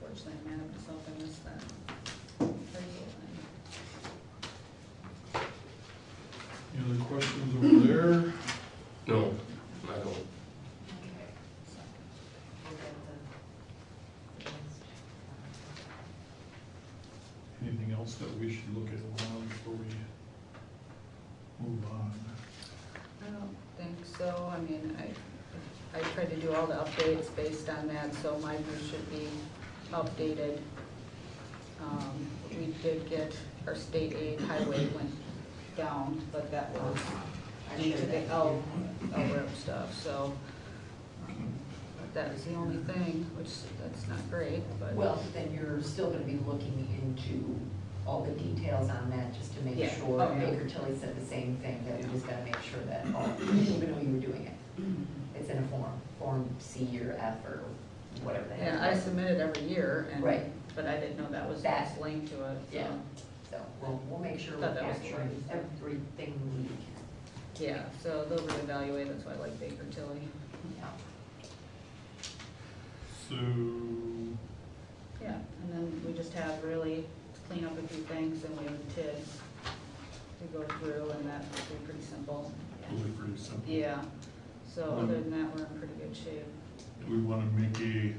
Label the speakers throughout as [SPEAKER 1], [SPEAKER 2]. [SPEAKER 1] unfortunately, I'm mad at myself, I missed that. appraisal thing.
[SPEAKER 2] Any other questions over there?
[SPEAKER 3] No, I don't.
[SPEAKER 1] Okay, so,
[SPEAKER 4] We'll get the-
[SPEAKER 2] Anything else that we should look at now before we move on?
[SPEAKER 1] I don't think so, I mean, I, I tried to do all the updates based on that, so my view should be updated. Um, we did get, our state aid highway went down, but that was due to the L, LRIP stuff, so. um, That is the only thing, which, that's not great, but.
[SPEAKER 4] Well, then you're still gonna be looking into all the details on that, just to make
[SPEAKER 1] Yeah.
[SPEAKER 4] sure,
[SPEAKER 1] Oh, yeah.
[SPEAKER 4] Baker Tilly said the same thing, that we just gotta make sure that, all- even though you were doing it,
[SPEAKER 1] Mm-hmm.
[SPEAKER 4] it's in a form, Form C or F or whatever the heck.
[SPEAKER 1] Yeah, I submit it every year and.
[SPEAKER 4] Right.
[SPEAKER 1] But I didn't know that was
[SPEAKER 4] That-
[SPEAKER 1] linked to it, so.
[SPEAKER 4] Yeah. So, we'll, we'll make sure
[SPEAKER 1] Thought
[SPEAKER 4] we're
[SPEAKER 1] that was the
[SPEAKER 4] capturing
[SPEAKER 1] right-
[SPEAKER 4] everything we can.
[SPEAKER 1] Yeah, so they'll reevaluate, that's why I like Baker Tilly.
[SPEAKER 4] Yeah.
[SPEAKER 2] So,
[SPEAKER 1] Yeah, and then we just have really clean up a few things and we have the TIDs to go through and that would be pretty simple.
[SPEAKER 2] those are pretty simple.
[SPEAKER 1] Yeah, so other than that, we're in pretty good shape.
[SPEAKER 2] Do we want to make a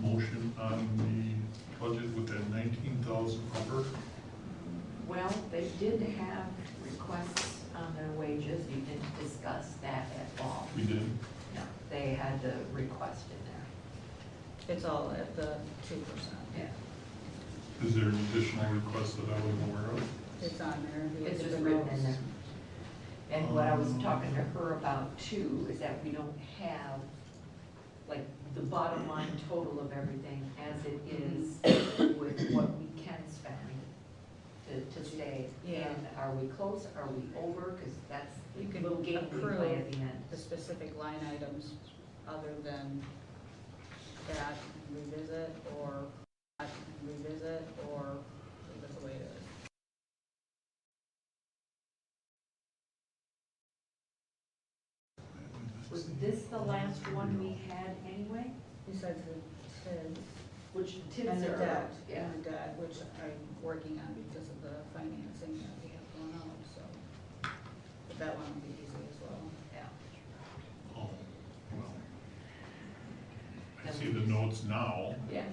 [SPEAKER 2] motion on the budget with that nineteen thousand upper?
[SPEAKER 4] Well, they did have requests on their wages, you didn't discuss that at all.
[SPEAKER 2] We did.
[SPEAKER 4] No, they had the request in
[SPEAKER 1] It's all at the two percent.
[SPEAKER 4] there.
[SPEAKER 2] Is there an additional request that I wasn't aware of?
[SPEAKER 1] It's on there.
[SPEAKER 4] It's
[SPEAKER 1] the
[SPEAKER 4] just written in
[SPEAKER 1] notes.
[SPEAKER 4] there. And what I was talking to her about too, is that we don't have, like, the bottom line total of everything as it is with what we can spend to, to stay.
[SPEAKER 1] Yeah.
[SPEAKER 4] And are we close, are we over, because that's
[SPEAKER 1] You
[SPEAKER 4] the
[SPEAKER 1] can
[SPEAKER 4] little game we play at the end.
[SPEAKER 1] The specific line items other than that and revisit or that and revisit or leave it the way it is.
[SPEAKER 4] Was this the last one we had anyway?
[SPEAKER 1] Besides the TIDs.
[SPEAKER 4] Which
[SPEAKER 1] And
[SPEAKER 4] tips
[SPEAKER 1] the
[SPEAKER 4] are
[SPEAKER 1] debt,
[SPEAKER 4] out, yeah.
[SPEAKER 1] and the debt, which I'm working on because of the financing that we have going on, so. But that one will be easy as well.
[SPEAKER 4] yeah.
[SPEAKER 2] Oh, well. I see the notes now.
[SPEAKER 4] Yeah,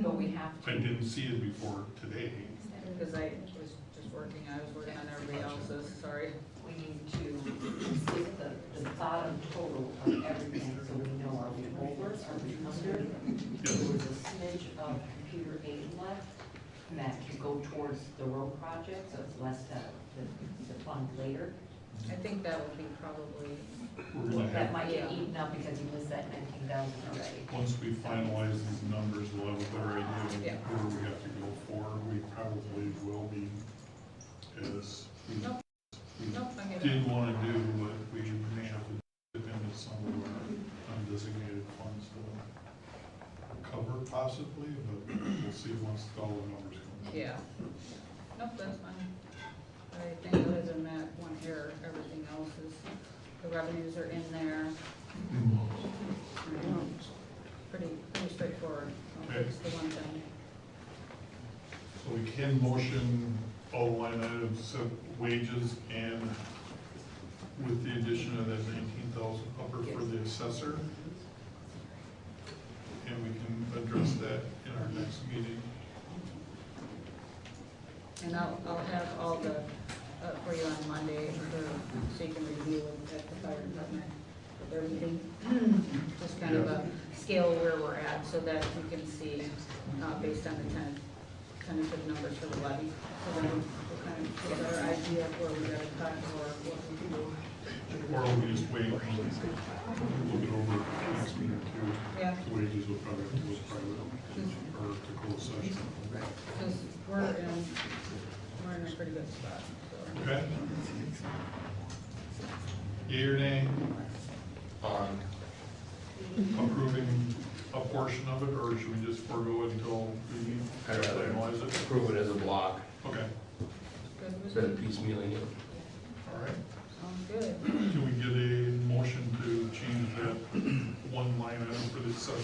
[SPEAKER 4] but we have
[SPEAKER 2] I
[SPEAKER 4] to.
[SPEAKER 2] didn't see it before today.
[SPEAKER 1] Because I was just working, I was working on everybody else's, sorry.
[SPEAKER 4] We need to get the, the bottom total of everything, so we know are we over, are we under?
[SPEAKER 2] Yes.
[SPEAKER 4] There was a smidge of computer aid left that could go towards the road project, so it's less to, the, the fund later.
[SPEAKER 1] I think that would be probably,
[SPEAKER 2] We're gonna
[SPEAKER 4] That
[SPEAKER 2] have,
[SPEAKER 4] might get eaten up because you missed that nineteen thousand already.
[SPEAKER 2] once we finalize these numbers, we'll have a better idea
[SPEAKER 1] Yeah.
[SPEAKER 2] of where we have to go for. We probably will be as
[SPEAKER 1] Nope.
[SPEAKER 2] we
[SPEAKER 1] nope, I'm
[SPEAKER 2] we
[SPEAKER 1] gonna,
[SPEAKER 2] did want to do, but we may have to dip into some of our undesignated funds to cover possibly, but we'll see once all the numbers come in.
[SPEAKER 1] yeah. Nope, that's fine. I think other than that one here, everything else is, the revenues are in there, pretty, pretty straightforward. I'll fix the one thing.
[SPEAKER 2] So we can motion all line items except wages and with the addition of that nineteen thousand upper for the assessor. And we can address that in our next meeting.
[SPEAKER 1] And I'll, I'll have all the, uh, for you on Monday, for, so you can review at the fire department, at their meeting. Just kind of a scale where we're at, so that you can see, uh, based on the ten, tentative numbers for the levy. So then we'll kind of get a better idea of where we're gonna cut or what we can do.
[SPEAKER 2] Or we just wait and look it over at the next meeting too.
[SPEAKER 1] Yeah,
[SPEAKER 2] Wages will probably have to go private or to close session.
[SPEAKER 1] because we're in, we're in a pretty good spot, so.
[SPEAKER 2] Okay? Yea or nay?
[SPEAKER 3] Um,
[SPEAKER 2] approving a portion of it, or should we just forego it until we
[SPEAKER 3] I'd rather-
[SPEAKER 2] finalize it?
[SPEAKER 3] approve it as a block
[SPEAKER 2] Okay,
[SPEAKER 1] Good, with
[SPEAKER 3] instead of
[SPEAKER 1] it?
[SPEAKER 3] piecemealing it.
[SPEAKER 2] all right.
[SPEAKER 1] Sounds good.
[SPEAKER 2] Can we get a motion to change that one line item for the assessor